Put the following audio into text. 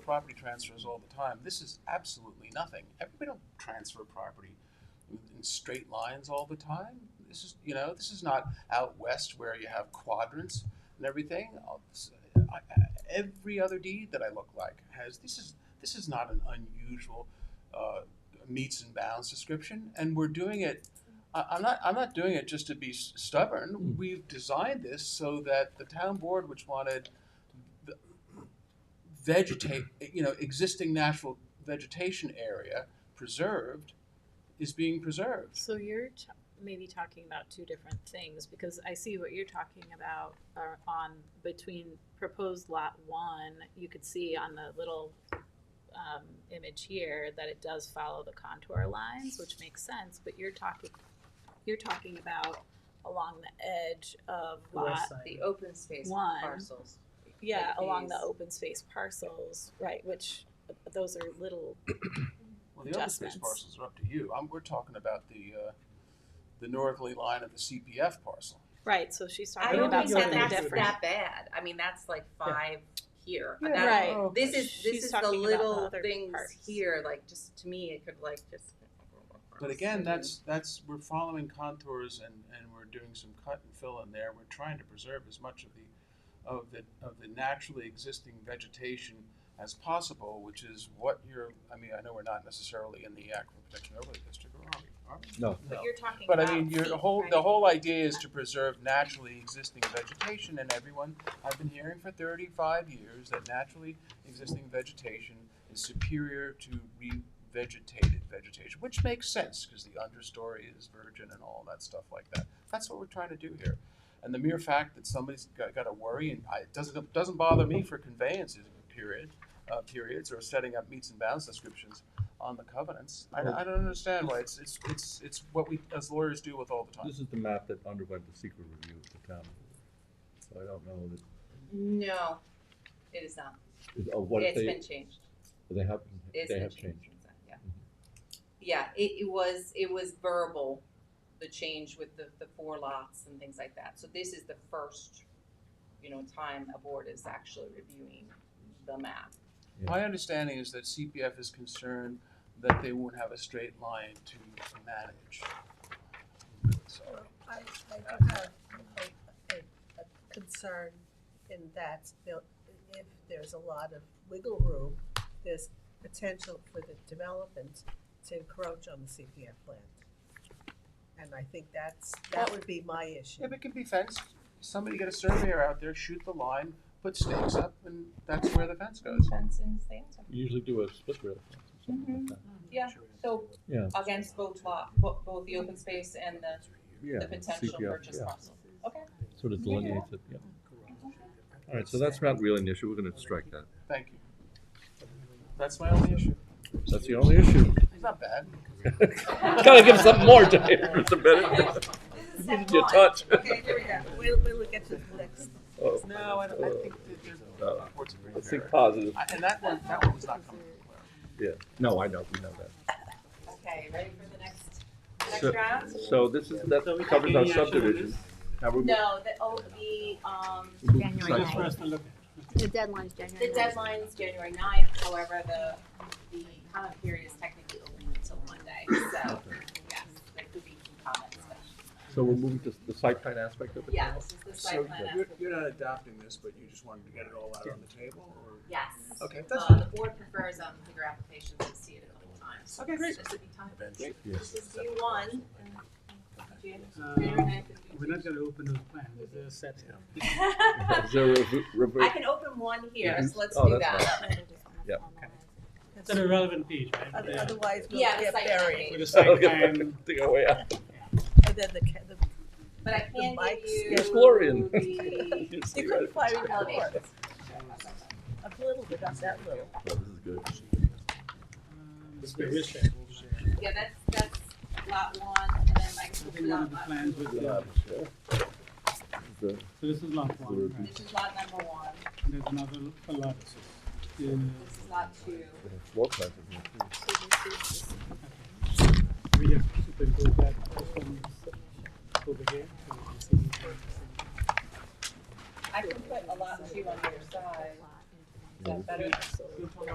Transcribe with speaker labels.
Speaker 1: property transfers all the time. This is absolutely nothing. Everybody don't transfer property in straight lines all the time. This is, you know, this is not out west where you have quadrants and everything. I, I, every other deed that I look like has this is this is not an unusual uh, meets and bounds description, and we're doing it. I, I'm not. I'm not doing it just to be s- stubborn.
Speaker 2: Mm.
Speaker 1: We've designed this so that the town board, which wanted the vegetate, you know, existing natural vegetation area preserved, is being preserved.
Speaker 3: So you're t- maybe talking about two different things because I see what you're talking about are on between proposed lot one. You could see on the little um, image here that it does follow the contour lines, which makes sense. But you're talking, you're talking about along the edge of
Speaker 2: The west
Speaker 3: lot
Speaker 2: side.
Speaker 4: The open space
Speaker 3: One.
Speaker 4: parcels.
Speaker 3: yeah,
Speaker 4: Like
Speaker 3: along the
Speaker 4: these.
Speaker 3: open space parcels, right? Which uh, those are little
Speaker 1: Well, the other space
Speaker 3: adjustments.
Speaker 1: parcels are up to you. i we're talking about the uh, the northerly line of the CPF parcel.
Speaker 3: right. So she's
Speaker 4: I
Speaker 3: talking
Speaker 4: don't
Speaker 3: about
Speaker 4: think
Speaker 2: you're
Speaker 4: that
Speaker 3: something
Speaker 2: gonna
Speaker 4: that's
Speaker 2: do
Speaker 3: different.
Speaker 4: that bad. I mean, that's like five here.
Speaker 1: Yeah,
Speaker 4: That-
Speaker 3: Right.
Speaker 1: Oh.
Speaker 4: This is
Speaker 3: She's
Speaker 4: this is the
Speaker 3: talking about the
Speaker 4: little
Speaker 3: other
Speaker 4: things
Speaker 3: parts.
Speaker 4: here. Like just to me, it could like just.
Speaker 1: But again, that's, that's, we're following contours and, and we're doing some cut and fill in there. We're trying to preserve as much of the, of the, of the naturally existing vegetation as possible, which is what you're, I mean, I know we're not necessarily in the aquifer protection overlay district, or are we? Are we?
Speaker 2: No.
Speaker 3: But you're talking
Speaker 1: But
Speaker 3: about
Speaker 1: I mean, your
Speaker 3: feet,
Speaker 1: whole,
Speaker 3: right?
Speaker 1: the whole idea is to preserve naturally existing vegetation, and everyone, I've been hearing for thirty-five years that naturally existing vegetation is superior to re-vegetated vegetation, which makes sense, because the understory is virgin and all that stuff like that. That's what we're trying to do here. And the mere fact that somebody's got, got to worry, and I, it doesn't, doesn't bother me for conveyances, period, uh, periods, or setting up meets and bounds descriptions on the covenants. I, I don't understand why it's, it's, it's, it's what we, as lawyers do with all the time.
Speaker 5: This is the map that underwent the secret review of the town. So I don't know that,
Speaker 4: no. It is not.
Speaker 5: is- oh, what if
Speaker 4: It's
Speaker 5: they,
Speaker 4: been changed.
Speaker 5: they have,
Speaker 4: It's
Speaker 5: they
Speaker 4: been
Speaker 5: have
Speaker 4: changed.
Speaker 5: changed. Mm-hmm.
Speaker 4: since then, Yeah. Yeah. It, it was it was verbal, the change with the, the four lots and things like that. So this is the first, you know, time a board is actually reviewing the map.
Speaker 1: My understanding is that CPF is concerned that they won't have a straight line to manage. Sorry.
Speaker 6: I, I do have a, a, a concern in that there- if there's a lot of wiggle room, there's potential for the development to encroach on the CPF land. And I think that's, that would be my issue.
Speaker 1: If it can be fenced, somebody get a surveyor out there, shoot the line, put stakes up, and that's where the fence
Speaker 5: Oh,
Speaker 1: goes.
Speaker 4: Fences, they also-
Speaker 5: You usually do a split rail fence or something like that.
Speaker 4: Yeah, so
Speaker 5: Yeah.
Speaker 4: against both lot, both, both the open space and the,
Speaker 5: Yeah.
Speaker 4: the potential
Speaker 5: CPR,
Speaker 4: purchase
Speaker 5: yeah.
Speaker 4: parcel. Okay,
Speaker 5: Sort of delineates it, yeah. All right, so that's not really an issue. We're gonna strike that.
Speaker 1: Thank you. That's my only issue.
Speaker 5: That's the only issue.
Speaker 1: It's not bad.
Speaker 5: Gotta give something more, Dave, Mr. Bennett.
Speaker 4: this is
Speaker 5: You
Speaker 4: step
Speaker 5: need your
Speaker 4: one.
Speaker 5: touch.
Speaker 6: Okay, here we go. We'll, we'll get to the next.
Speaker 5: Oh,
Speaker 1: No, I don't, I think that there's.
Speaker 5: No.
Speaker 1: reports of
Speaker 5: Let's think
Speaker 1: repair.
Speaker 5: positive.
Speaker 1: I- And that one, that one was not coming.
Speaker 5: Yeah. No, I know, we know that.
Speaker 4: Okay, ready for the next,
Speaker 5: So-
Speaker 4: next round?
Speaker 5: So this is, that covers our subdivision. Now we're.
Speaker 4: No, the, oh, the, um,
Speaker 7: January
Speaker 5: Site plan.
Speaker 7: ninth. The deadline's January
Speaker 4: the
Speaker 7: ninth.
Speaker 4: deadline's January ninth, however, the, the comment period is technically open until Monday, so,
Speaker 5: Okay.
Speaker 4: yes, there could be some comments, but,
Speaker 5: So we're moving to the site plan aspect of it?
Speaker 4: yeah, this is
Speaker 1: So
Speaker 4: the site plan.
Speaker 1: you're,
Speaker 4: application.
Speaker 1: you're not adopting this, but you just wanted to get it all out on the table, or?
Speaker 4: Yes.
Speaker 1: Okay, that's
Speaker 4: Uh, the board prefers um bigger applications to see it a couple times.
Speaker 1: Okay, great.
Speaker 4: This would be time.
Speaker 1: Eventually.
Speaker 4: This is D one.
Speaker 8: Uh, We're not
Speaker 4: I
Speaker 8: gonna open those plans, they're set.
Speaker 5: Is there a re- rever-
Speaker 4: can open one here,
Speaker 5: Mhm.
Speaker 4: so let's
Speaker 5: Oh,
Speaker 4: do
Speaker 5: that's
Speaker 4: that.
Speaker 5: Yeah.
Speaker 8: It's an irrelevant page, right?
Speaker 6: Oth-
Speaker 8: Yeah.
Speaker 6: Otherwise, we'll
Speaker 4: Yeah, the
Speaker 6: get
Speaker 4: site plan.
Speaker 6: buried.
Speaker 8: With the
Speaker 5: I'll
Speaker 8: site
Speaker 5: get back to
Speaker 8: plan,
Speaker 5: the way out.
Speaker 6: And then the, ca- the,
Speaker 4: But I can
Speaker 6: mics.
Speaker 4: give you.
Speaker 5: Yes, Glorian.
Speaker 4: the
Speaker 6: they couldn't find it before.
Speaker 4: elevations.
Speaker 6: A little bit, not that little.
Speaker 5: Oh, This is good.
Speaker 4: Uh,
Speaker 8: um, it's the wish shape.
Speaker 4: Yeah, that's, that's lot one, and then I
Speaker 8: I
Speaker 4: can
Speaker 8: think
Speaker 4: open
Speaker 8: one of
Speaker 4: up
Speaker 8: the
Speaker 4: lot,
Speaker 8: plans was,
Speaker 5: Yeah,
Speaker 8: the-
Speaker 5: sure. The-
Speaker 8: so this is lot one, right?
Speaker 4: this is lot number one,
Speaker 8: And There's another l- a lot. Yeah.
Speaker 4: this is lot two.
Speaker 5: the floor plans is here, too.
Speaker 8: We have superimpose that from over here. so we can see the-
Speaker 4: I can put a lot two on your side, is that better?